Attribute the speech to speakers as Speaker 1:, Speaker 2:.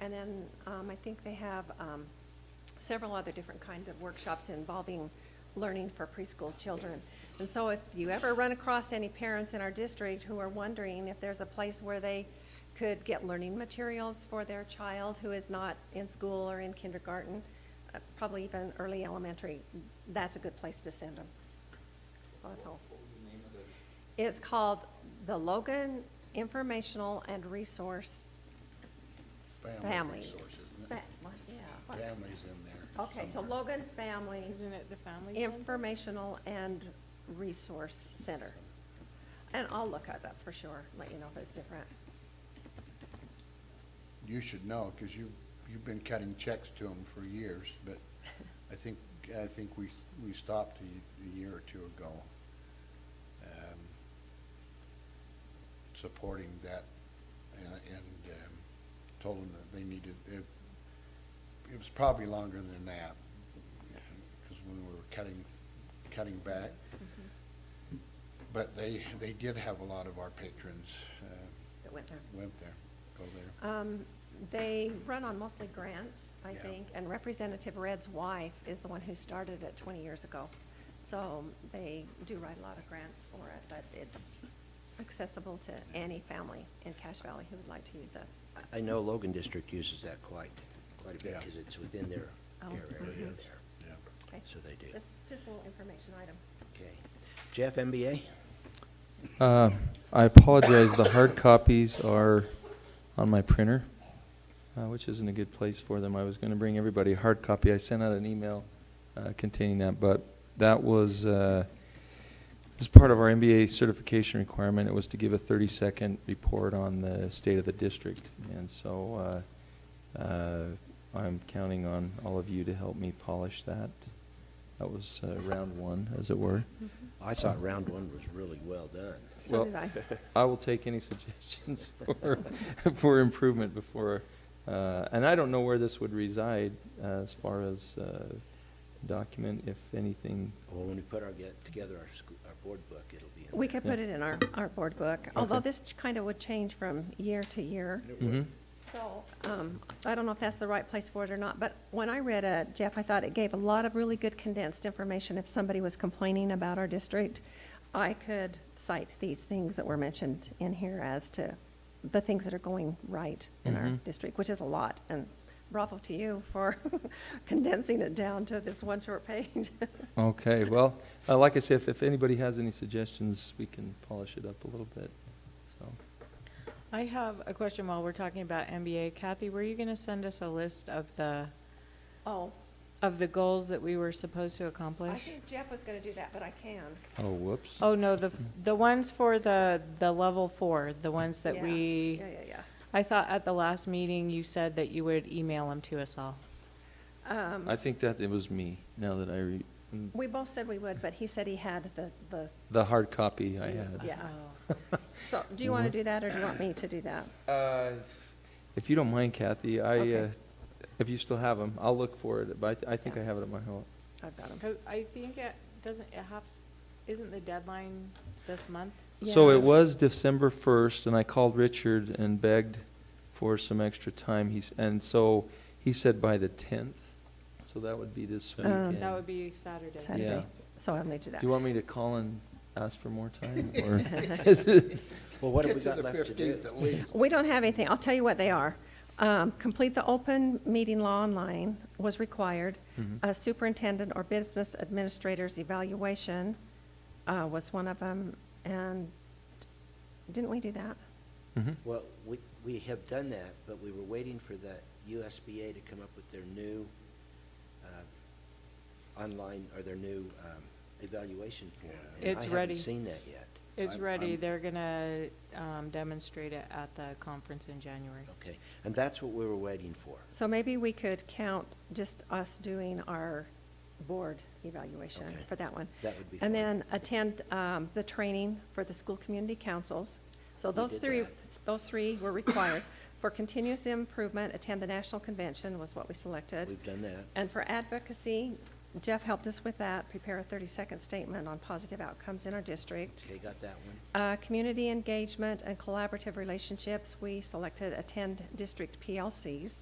Speaker 1: And then um, I think they have um, several other different kinds of workshops involving learning for preschool children. And so if you ever run across any parents in our district who are wondering if there's a place where they could get learning materials for their child who is not in school or in kindergarten, uh, probably even early elementary, that's a good place to send them. That's all. It's called the Logan Informational and Resource S-
Speaker 2: Family
Speaker 1: Family.
Speaker 2: Resource, isn't it?
Speaker 1: Fa- what? Yeah. what?
Speaker 2: Families in there.
Speaker 1: Okay, so
Speaker 2: somewhere.
Speaker 1: Logan Family
Speaker 3: Isn't it the family center?
Speaker 1: Informational and Resource Center. And I'll look it up for sure, let you know if it's different.
Speaker 2: You should know, because you, you've been cutting checks to them for years, but I think, I think we, we stopped a, y- a year or two ago, um, supporting that, and, and, um, told them that they needed, it, it was probably longer than that, because when we were cutting, cutting back. But they, they did have a lot of our patrons, uh,
Speaker 1: It went there.
Speaker 2: went there, go there.
Speaker 1: Um, They run on mostly grants, I
Speaker 2: Yeah.
Speaker 1: think, and Representative Red's wife is the one who started it 20 years ago. So they do write a lot of grants for it, but it's accessible to any family in Cache Valley who would like to use it.
Speaker 4: I know Logan District uses that quite, quite a bit,
Speaker 2: Yeah.
Speaker 4: because it's within their,
Speaker 1: Oh,
Speaker 4: their area
Speaker 1: mhm.
Speaker 4: there.
Speaker 2: Yeah.
Speaker 1: Okay.
Speaker 4: So they do.
Speaker 1: Just just a little information item.
Speaker 4: Okay. Jeff, MBA?
Speaker 5: Uh, I apologize, the hard copies are on my printer, uh, which isn't a good place for them. I was going to bring everybody a hard copy. I sent out an email uh, containing that, but that was, uh, as part of our MBA certification requirement, it was to give a 30-second report on the state of the district. And so uh, uh, I'm counting on all of you to help me polish that. That was uh, round one, as it were.
Speaker 4: I thought round one was really well done.
Speaker 1: So
Speaker 5: Well-
Speaker 1: did I.
Speaker 5: I will take any suggestions for, for improvement before, uh, and I don't know where this would reside uh, as far as uh, document, if anything.
Speaker 4: Well, when we put our, get together our, sc- our board book, it'll be in there.
Speaker 1: We could put
Speaker 5: Yeah.
Speaker 1: it in our, our board book, although
Speaker 5: Okay.
Speaker 1: this kind of would change from year to year.
Speaker 5: Mhm.
Speaker 1: So, um, I don't know if that's the right place for it or not, but when I read it, Jeff, I thought it gave a lot of really good condensed information. If somebody was complaining about our district, I could cite these things that were mentioned in here as to the things that are going right in our
Speaker 4: Mm-hmm.
Speaker 5: Mhm.
Speaker 1: district, which is a lot. And bravo to you for condensing it down to this one short page.
Speaker 5: Okay, well, uh, like I said, if, if anybody has any suggestions, we can polish it up a little bit, so.
Speaker 3: I have a question while we're talking about MBA. Kathy, were you going to send us a list of the,
Speaker 1: Oh,
Speaker 3: of the goals that we were supposed to
Speaker 1: I
Speaker 3: accomplish?
Speaker 1: think Jeff was gonna do that, but I can.
Speaker 5: Oh, whoops.
Speaker 3: Oh, no, the, f- the ones for the, the level four, the ones that
Speaker 1: Yeah.
Speaker 3: we,
Speaker 1: Yeah, yeah, yeah.
Speaker 3: I thought at the last meeting you said that you would email them to us all.
Speaker 5: I think that it was me, now that I re,
Speaker 1: Um, We both said we would, but he said he had the, the,
Speaker 5: the hard copy I had.
Speaker 1: yeah.
Speaker 3: Oh.
Speaker 1: So, do you want to
Speaker 5: Mm-hmm.
Speaker 1: do that, or do you want me to do that?
Speaker 5: Uh, If you don't mind, Kathy, I,
Speaker 1: Okay.
Speaker 5: uh, if you still have them, I'll look for it, but I I think I have it at my home.
Speaker 1: I've got 'em.
Speaker 3: Because I think it doesn't, it has, isn't the deadline this month?
Speaker 5: So it
Speaker 1: Yes.
Speaker 5: was December 1st, and I called Richard and begged for some extra time. He's, and so he said by the 10th, so that would be this
Speaker 1: Um, That
Speaker 5: weekend.
Speaker 3: That would be Saturday.
Speaker 1: Saturday. So I'll need to do
Speaker 5: Do
Speaker 1: that.
Speaker 5: you want me to call and ask for more time, or is it?
Speaker 4: Well, what have
Speaker 2: Get
Speaker 4: we
Speaker 2: to
Speaker 4: got
Speaker 2: the
Speaker 4: left to
Speaker 2: 15th
Speaker 4: do?
Speaker 2: at least.
Speaker 1: We don't have anything. I'll tell you what they are. Um, Complete the open meeting law online was required.
Speaker 5: Mm-hmm.
Speaker 1: A superintendent or business administrator's evaluation uh, was one of them, and didn't we do that?
Speaker 5: Mhm.
Speaker 4: Well, we, we have done that, but we were waiting for the USBA to come up with their new uh, online, or their new um, evaluation form. and
Speaker 3: It's
Speaker 4: I
Speaker 3: ready.
Speaker 4: haven't seen that yet.
Speaker 3: It's
Speaker 2: I'm-
Speaker 3: ready.
Speaker 2: I'm-
Speaker 3: They're gonna um, demonstrate it at the conference in January.
Speaker 4: Okay, and that's what we were waiting for.
Speaker 1: So maybe we could count just us doing our board evaluation
Speaker 4: Okay.
Speaker 1: for that one.
Speaker 4: That would be
Speaker 1: And
Speaker 4: fine.
Speaker 1: then attend um, the training for the school community councils. So
Speaker 4: We
Speaker 1: those
Speaker 4: did
Speaker 1: three,
Speaker 4: that.
Speaker 1: those three were required. For continuous improvement, attend the national convention was what we selected.
Speaker 4: We've done that.
Speaker 1: And for advocacy, Jeff helped us with that, prepare a 30-second statement on positive outcomes in our district.
Speaker 4: Okay, got that one.
Speaker 1: Uh, Community engagement and collaborative relationships, we selected attend district PLCs.